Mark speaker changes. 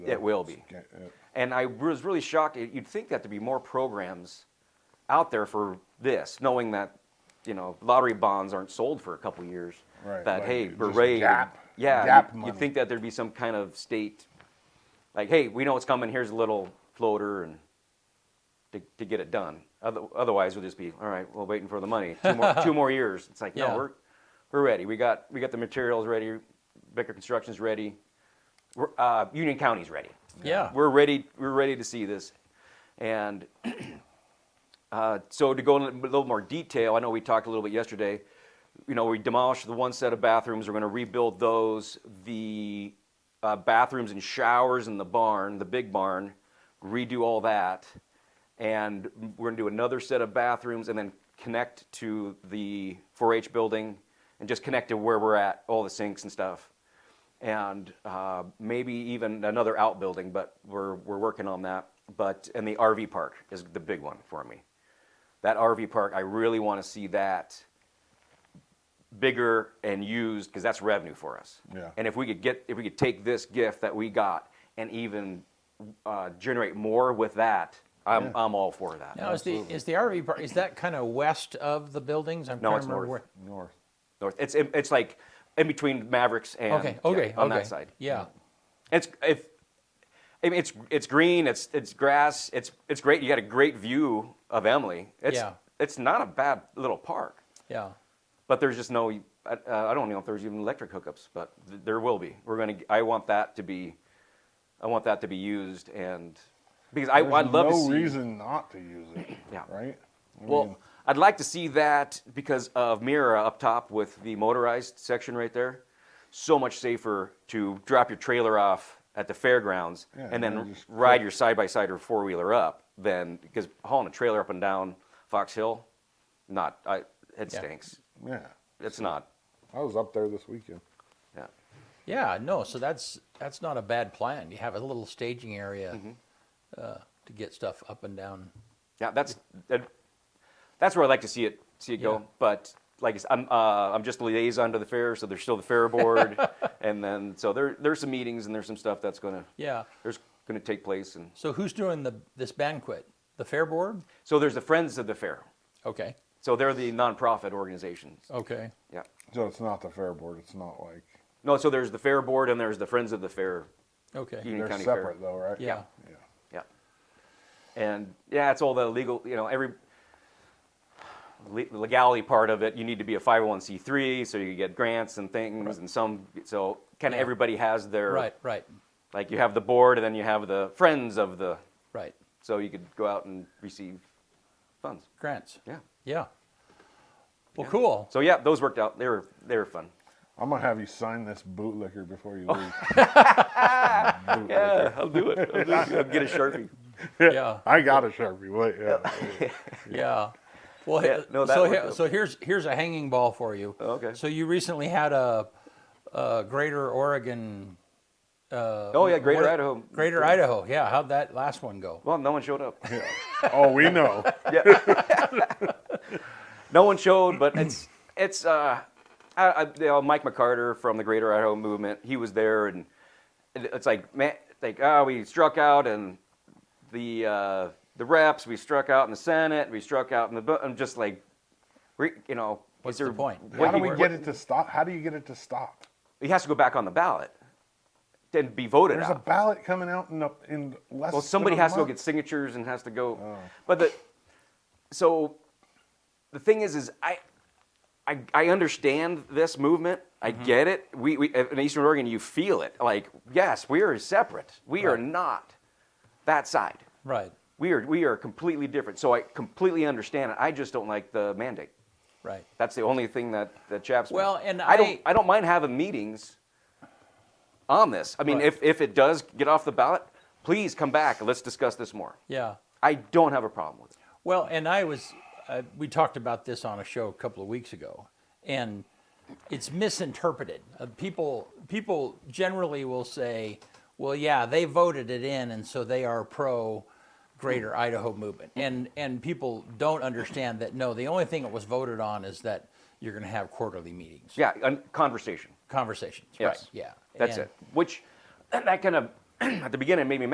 Speaker 1: It will be.
Speaker 2: Yeah, yeah.
Speaker 1: And I was really shocked. It- You'd think that there'd be more programs out there for this, knowing that you know lottery bonds aren't sold for a couple years.
Speaker 2: Right,
Speaker 1: That
Speaker 2: like
Speaker 1: hey,
Speaker 2: just
Speaker 1: beret.
Speaker 2: gap-
Speaker 1: yeah,
Speaker 2: gap
Speaker 1: you'd,
Speaker 2: money.
Speaker 1: you'd think that there'd be some kind of state, like hey, we know it's coming. Here's a little floater and to, to get it done. Other, otherwise, we'll just be all right. We're waiting for the money. Two more, two more years. It's like
Speaker 3: Yeah.
Speaker 1: no, we're we're ready. We got we got the materials ready. Becker Construction's ready. We're, uh, Union County's ready.
Speaker 3: Yeah.
Speaker 1: We're ready. We're ready to see this, and uh, so to go in a little more detail, I know we talked a little bit yesterday. You know, we demolished the one set of bathrooms. We're going to rebuild those. The uh, bathrooms and showers in the barn, the big barn, redo all that, and we're going to do another set of bathrooms and then connect to the 4-H building and just connect to where we're at, all the sinks and stuff and uh, maybe even another outbuilding, but we're, we're working on that. But, and the RV park is the big one for me. That RV park, I really want to see that bigger and used because that's revenue for us.
Speaker 2: Yeah.
Speaker 1: And if we could get, if we could take this gift that we got and even uh, generate more with that, I'm,
Speaker 2: Yeah.
Speaker 1: I'm all for that.
Speaker 3: Now, is the, is the RV park, is that kind of west of the buildings? I'm
Speaker 1: No,
Speaker 3: trying
Speaker 1: it's
Speaker 3: to remember
Speaker 1: north.
Speaker 2: North.
Speaker 1: North. It's, it's like in between Mavericks and
Speaker 3: where- Okay, okay,
Speaker 1: yeah, on
Speaker 3: okay.
Speaker 1: that side.
Speaker 3: Yeah,
Speaker 1: It's if I mean, it's it's green, it's it's grass, it's it's great. You got a great view of Emily. It's
Speaker 3: Yeah.
Speaker 1: it's not a bad little park,
Speaker 3: yeah.
Speaker 1: but there's just no. I, uh, I don't know if there's even electric hookups, but th- there will be. We're gonna. I want that to be, I want that to be used, and because I,
Speaker 2: There's
Speaker 1: I'd love
Speaker 2: no
Speaker 1: to see.
Speaker 2: reason not to use it.
Speaker 1: Yeah.
Speaker 2: Right. I mean,
Speaker 1: Well, I'd like to see that because of Mira up top with the motorized section right there. So much safer to drop your trailer off at the fairgrounds
Speaker 2: Yeah,
Speaker 1: and
Speaker 2: and
Speaker 1: then
Speaker 2: just
Speaker 1: ride your side by side or four wheeler up than because hauling a trailer up and down Fox Hill, not I, it
Speaker 3: Yeah.
Speaker 1: stinks.
Speaker 2: yeah.
Speaker 1: It's not.
Speaker 2: I was up there this weekend.
Speaker 1: Yeah.
Speaker 3: Yeah, no, so that's, that's not a bad plan. You have a little staging area
Speaker 1: Mm-hmm.
Speaker 3: uh, to get stuff up and down.
Speaker 1: Yeah, that's that, that's where I like to see it see it
Speaker 3: Yeah.
Speaker 1: go. But like I said, I'm uh, I'm just liaison to the fair, so there's still the fair board, and then so there there's some meetings and there's some stuff that's gonna
Speaker 3: Yeah.
Speaker 1: there's gonna take place, and
Speaker 3: So who's doing the, this banquet? The fair board?
Speaker 1: so there's the Friends of the Fair,
Speaker 3: Okay,
Speaker 1: so they're the nonprofit organizations.
Speaker 3: okay.
Speaker 1: Yeah,
Speaker 2: So it's not the fair board. It's not like
Speaker 1: no, so there's the fair board and there's the Friends of the Fair.
Speaker 3: Okay,
Speaker 1: Union
Speaker 2: they're
Speaker 1: County
Speaker 2: separate
Speaker 1: Fair.
Speaker 2: though, right?
Speaker 3: yeah,
Speaker 2: Yeah.
Speaker 1: Yeah, and yeah, it's all the legal, you know, every le- legality part of it. You need to be a 501c3, so you get grants and things, and some. So kind of
Speaker 3: Yeah.
Speaker 1: everybody has their
Speaker 3: right, right,
Speaker 1: Like you have the board, and then you have the friends of the.
Speaker 3: right.
Speaker 1: So you could go out and receive funds.
Speaker 3: Grants,
Speaker 1: Yeah.
Speaker 3: yeah. Well, cool.
Speaker 1: So yeah, those worked out. They were they were fun.
Speaker 2: I'm gonna have you sign this bootlicker before you leave. Bootlicker.
Speaker 1: Yeah, I'll do it. I'll, do it. I'll get a sharpie.
Speaker 3: Yeah.
Speaker 2: I got a sharpie. Wait, yeah.
Speaker 3: Yeah. Well,
Speaker 1: Yeah, no, that
Speaker 3: so
Speaker 1: worked
Speaker 3: he-
Speaker 1: out.
Speaker 3: so here's here's a hanging ball for you.
Speaker 1: Oh, okay.
Speaker 3: So you recently had a, a Greater Oregon. Uh,
Speaker 1: Oh yeah, Greater
Speaker 3: what-
Speaker 1: Idaho.
Speaker 3: Greater Idaho. Yeah. How'd that last one go?
Speaker 1: Well, no one showed up.
Speaker 2: oh, we know.
Speaker 1: Yeah. no one showed, but it's it's uh, I, I, you know, Mike McCarter from the Greater Idaho Movement. He was there, and it- it's like man, like oh, we struck out and the uh, the reps, we struck out in the Senate, we struck out in the. bu- I'm just like, re, you know,
Speaker 3: What's
Speaker 1: is there,
Speaker 3: the point?
Speaker 1: what
Speaker 2: How do
Speaker 1: you-
Speaker 2: we get it to stop? How do you get it to stop?
Speaker 1: He has to go back on the ballot, then be voted
Speaker 2: There's
Speaker 1: out.
Speaker 2: a ballot coming out in, the, in less.
Speaker 1: Well, somebody
Speaker 2: than a
Speaker 1: has to go
Speaker 2: month.
Speaker 1: get signatures and has to go. But the so the thing is, is I I, I understand this movement. I get it. We, we uh, in Eastern Oregon, you feel it. Like yes, we are separate. We are
Speaker 3: Right.
Speaker 1: not that side.
Speaker 3: Right.
Speaker 1: We are we are completely different. So I completely understand it. I just don't like the mandate.
Speaker 3: Right.
Speaker 1: That's the only thing that that chaps me.
Speaker 3: Well, and
Speaker 1: don't
Speaker 3: I-
Speaker 1: I don't mind having meetings on this. I mean,
Speaker 3: Right.
Speaker 1: if if it does get off the ballot, please come back. and Let's discuss this more.
Speaker 3: Yeah.
Speaker 1: I don't have a problem with it.
Speaker 3: Well, and I was, uh, we talked about this on a show a couple of weeks ago, and it's misinterpreted. Uh, people, people generally will say, "Well, yeah, they voted it in, and so they are pro Greater Idaho movement," and and people don't understand that. No, the only thing that was voted on is that you're going to have quarterly meetings,
Speaker 1: Yeah, and conversation.
Speaker 3: conversations,
Speaker 1: Yes.
Speaker 3: right? Yeah,
Speaker 1: That's
Speaker 3: And-
Speaker 1: it. Which that kind of at the beginning it made me